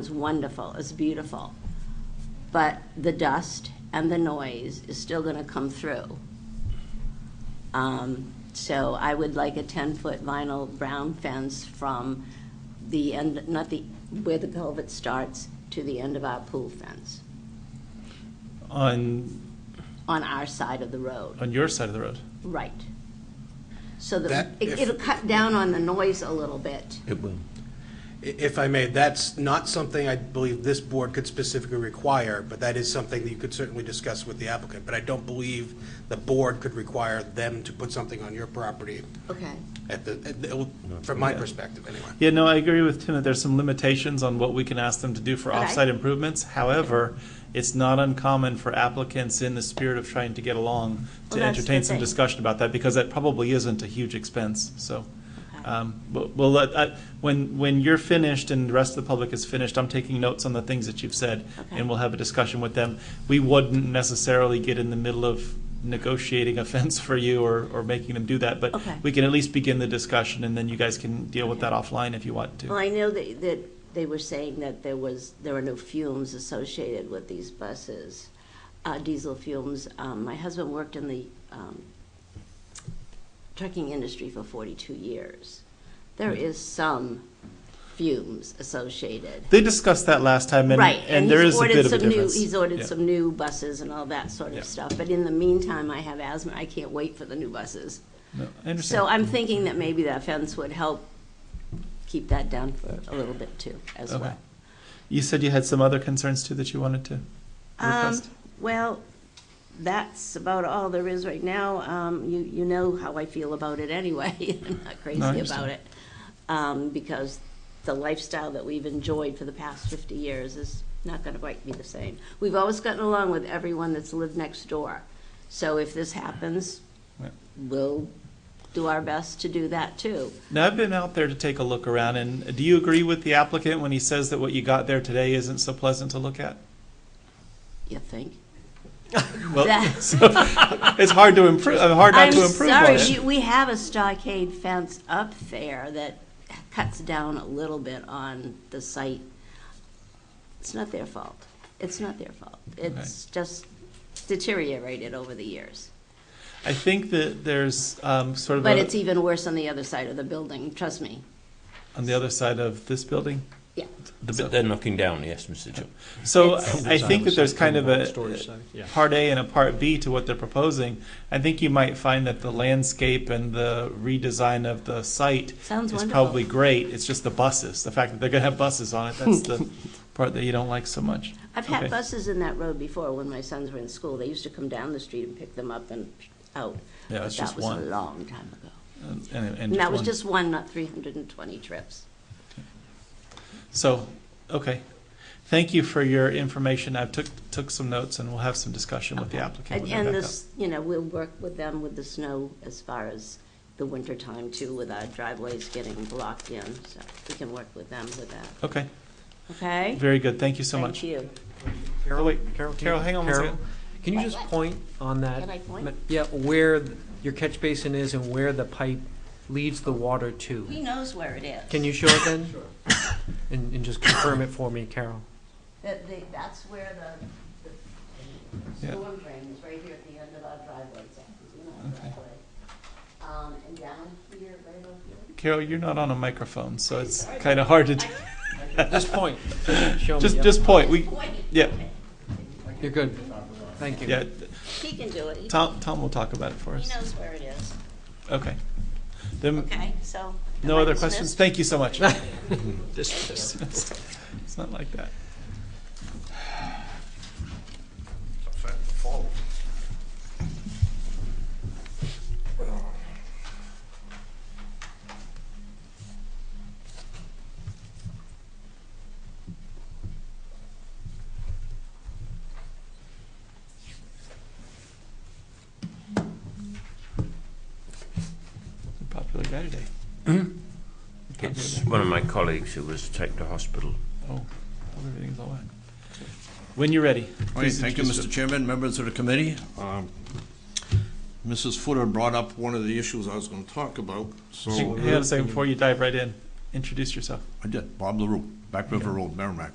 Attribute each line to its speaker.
Speaker 1: was wonderful, it's beautiful. But the dust and the noise is still gonna come through. Um, So I would like a ten-foot vinyl brown fence from the end, not the, where the culvert starts to the end of our pool fence,
Speaker 2: on
Speaker 1: on our side of the road,
Speaker 2: on your side of the road.
Speaker 1: right. So
Speaker 3: That-
Speaker 1: that, it-
Speaker 3: if-
Speaker 1: it'll cut down on the noise a little bit.
Speaker 4: It will.
Speaker 3: I- If I may, that's not something I believe this board could specifically require, but that is something that you could certainly discuss with the applicant. But I don't believe the board could require them to put something on your property
Speaker 1: Okay,
Speaker 3: at the, at the- from my perspective, anyway.
Speaker 2: Yeah, no, I agree with Tim that there's some limitations on what we can ask them to do for
Speaker 1: Okay.
Speaker 2: off-site improvements. However, it's not uncommon for applicants in the spirit of trying to get along
Speaker 1: Well, that's
Speaker 2: to
Speaker 1: the
Speaker 2: entertain some
Speaker 1: thing.
Speaker 2: discussion about that because that probably isn't a huge expense, so.
Speaker 1: Okay.
Speaker 2: Um, but we'll let, I, when, when you're finished and the rest of the public is finished, I'm taking notes on the things that you've said
Speaker 1: Okay.
Speaker 2: and we'll have a discussion with them. We wouldn't necessarily get in the middle of negotiating a fence for you or, or making them do that, but
Speaker 1: Okay.
Speaker 2: we can at least begin the discussion and then you guys can deal with
Speaker 1: Okay.
Speaker 2: that offline if you want to.
Speaker 1: well, I know that, that they were saying that there was, there were no fumes associated with these buses, uh, diesel fumes. Um, my husband worked in the, um, trucking industry for forty-two years.
Speaker 2: Hmm.
Speaker 1: There is some fumes associated.
Speaker 2: They discussed that last time, and,
Speaker 1: Right,
Speaker 2: and
Speaker 1: and
Speaker 2: there
Speaker 1: he's
Speaker 2: is a bit
Speaker 1: ordered
Speaker 2: of a
Speaker 1: some new,
Speaker 2: difference.
Speaker 1: he's ordered
Speaker 2: Yeah.
Speaker 1: some new buses and all that sort
Speaker 2: Yeah.
Speaker 1: of stuff. But in the meantime, I have asthma, I can't wait for the new buses.
Speaker 2: No, I
Speaker 1: So
Speaker 2: understand.
Speaker 1: I'm thinking that maybe that fence would help keep that down for a little bit too, as
Speaker 2: Okay.
Speaker 1: well.
Speaker 2: You said you had some other concerns too that you wanted to
Speaker 1: Um,
Speaker 2: request?
Speaker 1: well, that's about all there is right now. Um, you, you know how I feel about it anyway. I'm not
Speaker 2: No, I
Speaker 1: crazy about
Speaker 2: understand.
Speaker 1: it. Um, because the lifestyle that we've enjoyed for the past fifty years is not gonna quite be the same. We've always gotten along with everyone that's lived next door. So if this happens,
Speaker 2: Yeah.
Speaker 1: we'll do our best to do that too.
Speaker 2: Now, I've been out there to take a look around, and do you agree with the applicant when he says that what you got there today isn't so pleasant to look at?
Speaker 1: You think?
Speaker 2: Well,
Speaker 1: That-
Speaker 2: so, it's hard to improve, hard not
Speaker 1: I'm
Speaker 2: to improve on
Speaker 1: sorry,
Speaker 2: it.
Speaker 1: you- we have a stockade fence up there that cuts down a little bit on the site. It's not their fault. It's not their fault. It's just deteriorated over the years.
Speaker 2: I think that there's um, sort of
Speaker 1: But
Speaker 2: a-
Speaker 1: it's even worse on the other side of the building, trust me.
Speaker 2: on the other side of this building.
Speaker 1: Yeah.
Speaker 2: The, bu-
Speaker 4: But they're knocking down, yes, Mr. Jones.
Speaker 2: So
Speaker 1: It's-
Speaker 2: I I think that there's kind of
Speaker 5: Storage
Speaker 2: a uh,
Speaker 5: side, yeah.
Speaker 2: part A and a part B to what they're proposing. I think you might find that the landscape and the redesign of the site
Speaker 1: Sounds
Speaker 2: is
Speaker 1: wonderful.
Speaker 2: probably great. It's just the buses, the fact that they're gonna have buses on it, that's the part that you don't like so much.
Speaker 1: I've had
Speaker 2: Okay.
Speaker 1: buses in that road before when my sons were in school. They used to come down the street and pick them up and out.
Speaker 2: Yeah,
Speaker 1: But
Speaker 2: it's just
Speaker 1: That was
Speaker 2: one.
Speaker 1: a long time ago.
Speaker 2: And- Uh, and- and
Speaker 1: And that was
Speaker 2: one.
Speaker 1: just one, not 320 trips.
Speaker 2: So, okay. Thank you for your information. I've took, took some notes and we'll have some discussion with the
Speaker 1: Okay.
Speaker 2: applicant.
Speaker 1: And-
Speaker 2: when they're
Speaker 1: And
Speaker 2: back
Speaker 1: this, you know, we'll work with them with the snow as far as the winter time too, with our driveways getting blocked in, so we can work with them with that,
Speaker 2: up. Okay,
Speaker 1: okay?
Speaker 2: very good. Thank you so
Speaker 1: Thank
Speaker 2: much.
Speaker 1: you.
Speaker 2: Oh, wait.
Speaker 5: Carol, can
Speaker 2: Carol,
Speaker 5: you-
Speaker 2: hang on one
Speaker 5: Carol,
Speaker 2: second.
Speaker 5: Can you just point on that?
Speaker 1: Can I point?
Speaker 5: ma- Yeah, where th- your catch basin is and where the pipe leads the water
Speaker 1: He
Speaker 5: to.
Speaker 1: knows where it is.
Speaker 5: Can you show it then? Sure. And, and just confirm it for me, Carol.
Speaker 1: That, they- that's where the, the
Speaker 2: Yeah.
Speaker 1: storm drain is, right here at the end of our driveway, so, you know, our driveway. Um, and down here, right over here.
Speaker 2: Carol, you're not on a microphone, so it's kind of hard to,
Speaker 5: Just point. Show me.
Speaker 2: just,
Speaker 5: yep.
Speaker 2: just point. We,
Speaker 1: Wait,
Speaker 2: yeah,
Speaker 5: You're good. Thank you.
Speaker 2: yeah.
Speaker 1: He can do it, he,
Speaker 2: Tom, Tom will talk about it for
Speaker 1: he
Speaker 2: us.
Speaker 1: knows where it is,
Speaker 2: Okay. Then,
Speaker 1: okay, so.
Speaker 2: no
Speaker 1: am I
Speaker 2: other questions?
Speaker 1: dismissed?
Speaker 2: Thank you so much.
Speaker 5: Just-
Speaker 2: It's not like that. Popular guy today.
Speaker 4: It's one of my colleagues who was taken to hospital.
Speaker 2: Oh, everything's all right. When you're ready.
Speaker 6: All right,
Speaker 2: please
Speaker 6: thank you,
Speaker 2: introduce
Speaker 6: Mr. Chairman, members of the committee. Um, Mrs. Footer brought up one of the issues I was going to talk about, so.
Speaker 2: Hang on a second before you dive right in. introduce yourself.
Speaker 6: I did, Bob LaRue, Back River Road, Merrimack.